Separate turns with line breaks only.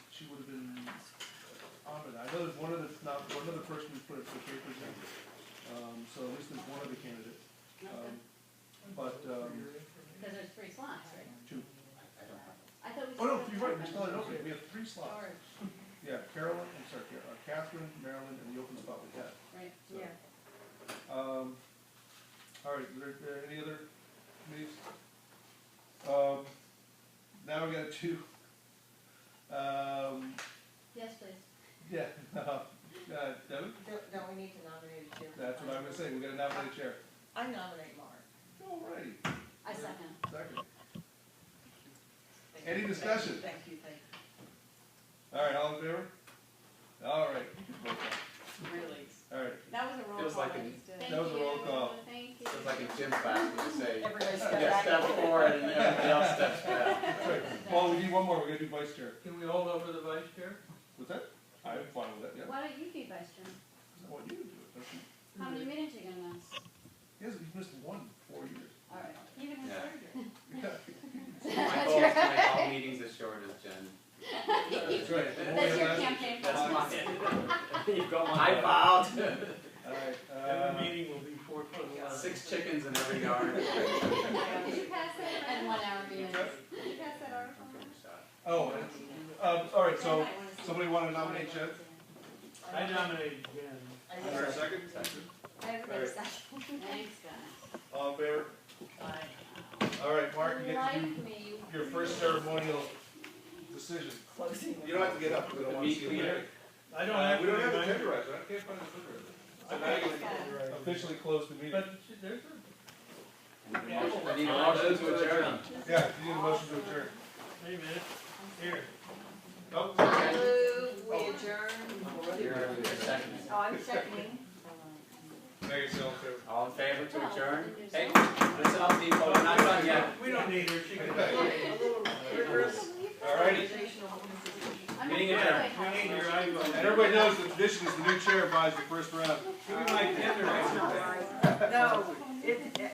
the, one of the, not, one other person we put it for three percent, um, so at least there's one other candidate. Um, But, um,
Because there's three slots, right?
two,
I thought we.
oh no,
still
you're right,
had
we still had an opening, we have three slots.
Sorry,
Yeah, Carolyn, I'm sorry, Ca- uh, Catherine, Marilyn, and the open spot we had.
right,
So, Um, all right, there, there any other committees? Um, now we got two. Um,
yes, please.
yeah, uh, Devin,
Don't, don't we need to nominate a chair?
that's what I'm gonna say, we gotta nominate chair.
I nominate Mark.
All righty.
I second.
Second. Any
Thank you, thank you,
discussion?
Thank you, thank
All right, all in favor? All right.
you, really.
All right,
That was a roll call.
Feels like
I
an-
just did.
Thank
That was a roll
you,
call.
Thank you.
It's like a gym class, you say,
Everybody step
you
back.
step forward and everybody else steps back.
that's right. Paul, we need one more, we're gonna do vice chair.
Can we hold over the vice chair?
What's that? I'm fine with that, yeah.
Why don't you be vice chairman?
I want you to do it, don't you?
How many minutes are you gonna last?
He hasn't, he's missed one in four years.
All right. Even
Yeah. My
That's
goal is to
your-
make all meetings as short as Jen.
That's right. The more
That's
we
your
last-
campaign.
That's
promise.
You've got one.
I filed
All right, uh,
Every meeting will be four foot long.
six chickens in every yard.
Did you pass that? And one hour meetings.
Did you pass that article?
oh, and, um, all right, so, somebody wanna nominate Jen?
I nominated Jen.
I
Is there a
just-
second? Sorry.
Everybody second.
Thanks, guys.
All in favor?
Aye.
All right, Mark, you get to
Like
do
me.
your first ceremonial decision.
Closing.
You don't have to get up, we don't want to see you.
Meet leader.
I don't
Uh,
have to
We don't have to
remind-
tenderize, it. I can't find a
I
tenderizer.
think it's right.
Officially close the meeting.
But she- there's a,
I need a motion to adjourn.
Yeah, you need a motion to adjourn.
wait a minute, here.
Oh,
I move, we adjourn.
You're in seconds.
Oh, I'm seconding.
Make yourself clear.
All in favor to adjourn?
Well,
Hey,
there's
Oh.
this is all people, we're not done yet.
We don't need her, she can.
A little rigorous
All righty.
organizational institution.
no- I'm
Meeting
not
adjourned.
really happy.
We need your eyes on
And everybody knows the tradition is the new chair buys the first round.
Give me my tenderizer.
No, it,